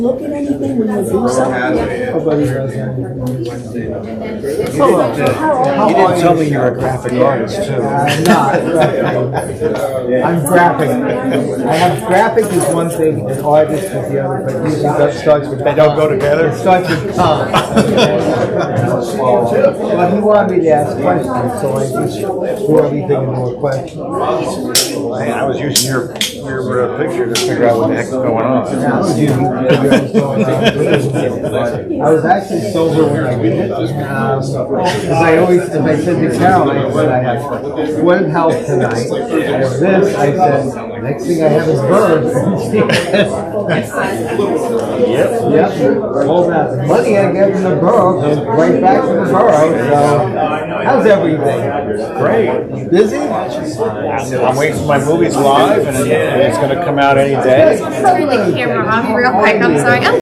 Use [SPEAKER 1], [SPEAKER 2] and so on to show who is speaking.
[SPEAKER 1] look at anything when you do
[SPEAKER 2] has
[SPEAKER 1] something?
[SPEAKER 2] it.
[SPEAKER 3] Nobody does anything.
[SPEAKER 4] You didn't tell me you were a graphic artist too.
[SPEAKER 3] I'm not. I'm graphic. I have graphic is one thing and artist is the other, but usually that starts with.
[SPEAKER 4] They don't go together?
[SPEAKER 3] It starts with Tom. Well, he wanted me to ask questions, so I just threw everything into more questions.
[SPEAKER 4] Man, I was using your, your uh, picture to figure out what the heck's going
[SPEAKER 3] I
[SPEAKER 4] on.
[SPEAKER 3] was using- I was actually sober when I did it. Because I always, as I said to Carol, I said, I have one health tonight. I have this, I said, next thing I have is birds.
[SPEAKER 4] Yep.
[SPEAKER 3] Yep, all that money I get from the borough goes right back to the borough, so how's everything?
[SPEAKER 4] Great.
[SPEAKER 3] Busy?
[SPEAKER 4] I'm waiting for my movies live and it's gonna come out any day.
[SPEAKER 5] Turn the camera off real quick, I'm sorry.